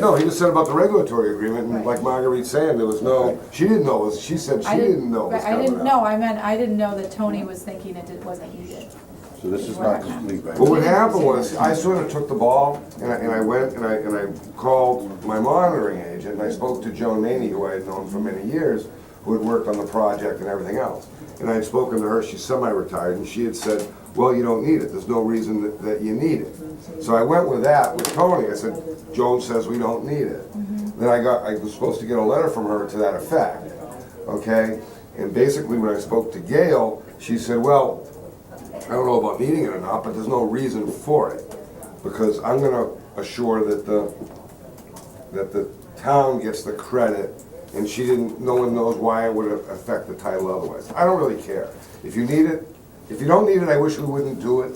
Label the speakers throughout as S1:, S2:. S1: No, he just said about the regulatory agreement, and
S2: Right.
S1: like Marguerite's saying, there was no, she didn't know, it was- she said she
S2: I
S1: didn't know it was
S2: But I
S1: coming
S2: didn't
S1: up.
S2: know, I meant, I didn't know that Tony was thinking it did- wasn't needed.
S3: So this is not complete, right?
S1: But what happened was, I sort of took the ball, and I, and I went, and I, and I called my monitoring agent, and I spoke to Joan Maney, who I had known for many years, who had worked on the project and everything else. And I had spoken to her, she's semi-retired, and she had said, well, you don't need it, there's no reason that, that you need it. So I went with that with Tony, I said, Joan says we don't need it. Then I got, I was supposed to get a letter from her to that effect, okay? And basically, when I spoke to Gail, she said, well, I don't know about needing it or not, but there's no reason for it. Because I'm gonna assure that the, that the town gets the credit, and she didn't, no one knows why it would affect the title otherwise. I don't really care. If you need it, if you don't need it, I wish we wouldn't do it,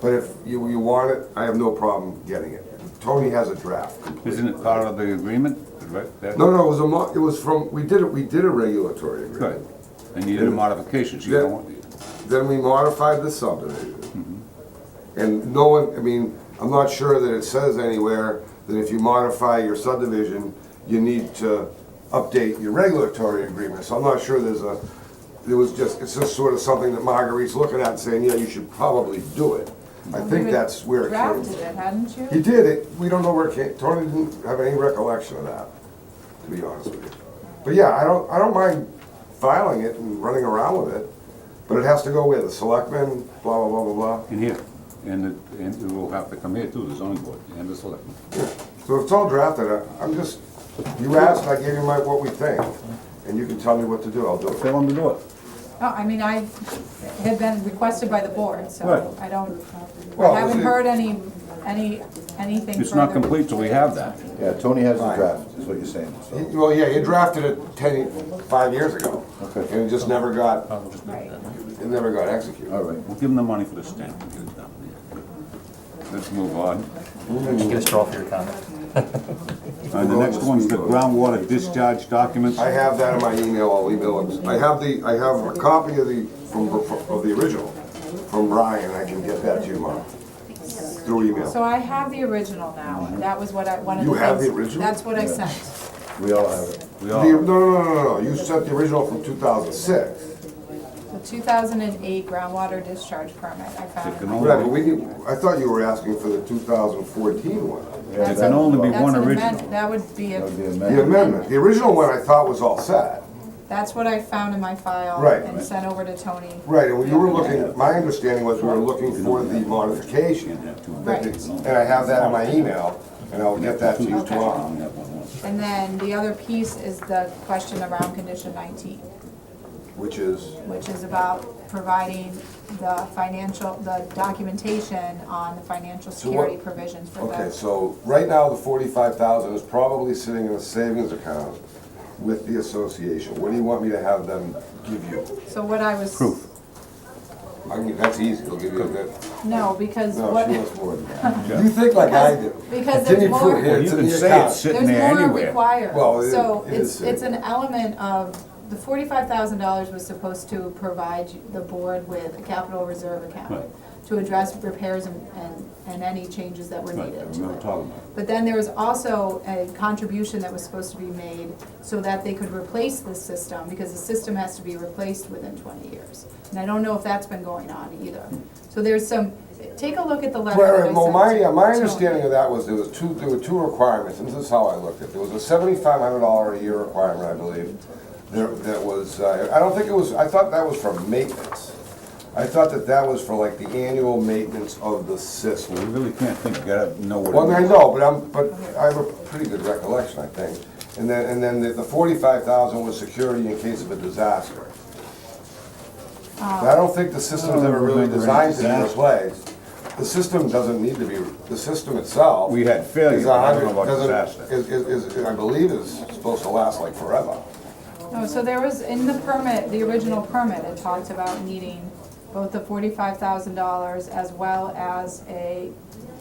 S1: but if you, you want it, I have no problem getting it. Tony has a draft.
S3: Isn't it part of the agreement, right? That-
S1: No, no, it was a mo, it was from, we did it, we did a regulatory agreement.
S3: Good. They needed a modification, so you don't want
S1: Then we modified the subdivision. And no one, I mean, I'm not sure that it says anywhere that if you modify your subdivision, you need to update your regulatory agreement. So I'm not sure there's a, it was just, it's just sort of something that Marguerite's looking at and saying, yeah, you should probably do it. I think that's where it came
S2: Drafted
S1: from.
S2: it, hadn't you?
S1: He did it, we don't know where it came, Tony didn't have any recollection of that, to be honest with you. But yeah, I don't, I don't mind filing it and running around with it, but it has to go with the selectmen, blah, blah, blah, blah, blah.
S3: in here. And it, and it will have to come here too, the zoning board and the selectmen.
S1: So it's all drafted, I- I'm just, you asked, I gave you my, what we think, and you can tell me what to do, I'll do it.
S3: Fill in the door.
S2: No, Oh, I mean, I had been requested by the board, so
S3: Right.
S2: I don't,
S1: Well,
S2: I haven't
S1: it-
S2: heard any, any, anything
S3: It's not
S2: further.
S3: complete till we have that.
S4: Yeah, Tony has the
S1: Right.
S4: draft, is what you're saying,
S1: He-
S4: so.
S1: Well, yeah, he drafted it ten, five years ago,
S4: Okay.
S1: and it just never got,
S2: Right.
S1: it never got executed.
S4: All right.
S3: We'll give them the money for the stamp and get it done. Let's move on.
S5: Just get a straw for your comment.
S3: Uh, the next one's the groundwater discharge documents.
S1: I have that in my email, I'll email it. I have the, I have a copy of the, from, of the original, from Brian, I can get that to you, Mark, through
S2: So
S1: email.
S2: I have the original now, and that was what I, one of the
S1: You
S2: things.
S1: have the original?
S2: That's what I sent.
S4: We all have it.
S3: We
S1: The-
S3: all,
S1: No, no, no, no, no, you sent the original from two thousand six.
S2: The two thousand and eight groundwater discharge permit, I
S3: there
S2: found.
S3: can
S2: it.
S1: Right, but
S3: only,
S1: we need, I thought you were asking for the two thousand fourteen one.
S4: Yeah,
S2: That's
S3: there
S4: that
S3: can
S2: a-
S4: was
S3: only be
S2: That's
S3: one
S2: an
S3: original.
S2: amendment, that would be,
S4: all- That would be
S2: a.
S1: The
S4: amended.
S1: amendment, the original one I thought was all set.
S2: that's what I found in my file.
S1: Right.
S2: And sent over to Tony.
S1: Right, and you were looking, my understanding was we were looking for the
S3: Can't
S1: modification.
S3: have two.
S2: Right.
S1: And I have that in my email, and I'll get that to you
S3: Two, I
S1: tomorrow.
S3: only have one more.
S2: And then the other piece is the question around condition nineteen,
S1: Which is,
S2: which is about providing the financial, the documentation on the financial
S1: what-
S2: security provisions for
S1: Okay,
S2: the.
S1: so right now, the forty-five thousand is probably sitting in a savings account with the association. What do you want me to have them give you?
S2: So what I was.
S3: Proof.
S1: I mean, that's easy, they'll give you that.
S2: No, because
S1: No,
S2: what,
S1: she wants more than that. You think like I do.
S2: because
S1: Give me proof
S2: there's more-
S1: here,
S3: Well, you
S1: it's in
S3: can
S1: the
S3: say
S1: account.
S3: it's
S2: there's
S3: sitting there
S2: more
S3: anywhere.
S2: required.
S1: Well, it-
S2: So
S1: it
S2: it's,
S1: is
S2: it's an element of, the forty-five thousand dollars was supposed to provide you- the board with a capital reserve account
S3: Right.
S2: to address repairs and, and, and any changes that were
S3: Right,
S2: needed
S3: I
S2: to
S3: remember
S2: it.
S3: talking about it.
S2: But then there was also a contribution that was supposed to be made so that they could replace the system, because the system has to be replaced within twenty years. And I don't know if that's been going on either. So there's some, take a look at the letter that I
S1: Well,
S2: sent.
S1: well, my, yeah, my
S2: to Tony.
S1: understanding of that was there was two, there were two requirements, and this is how I looked at it. There was a seventy-five hundred dollar a year requirement, I believe. There, that was, uh, I don't think it was, I thought that was for maintenance. I thought that that was for like the annual maintenance of the system.
S3: We really can't think, gotta know what. it
S1: Well, I
S3: is.
S1: know, but I'm, but I have a pretty good recollection, I think. And then, and then the- the forty-five thousand was security in case of a disaster. But I don't think the system's ever really
S3: remember any
S1: designed to be
S3: disaster.
S1: replaced. The system doesn't need to be, the system itself.
S3: We had failure,
S1: is a
S3: but I don't know
S1: hundred-
S3: about
S1: doesn't-
S3: disaster.
S1: Is, is, is, I believe is supposed to last like forever.
S2: No, Oh, so there was, in the permit, the original permit, it talked about needing both the forty-five thousand dollars as well as a,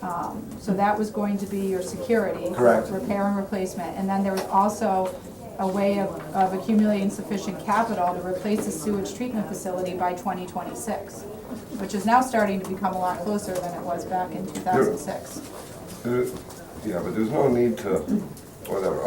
S2: um, so that was going to be your security.
S1: Correct.
S2: Repair and replacement, and then there was also a way of, of accumulating sufficient capital to replace the sewage treatment facility by twenty twenty-six, which is now starting to become a lot closer than it was back in two thousand six.
S1: Uh, yeah, but there's no need to, whatever,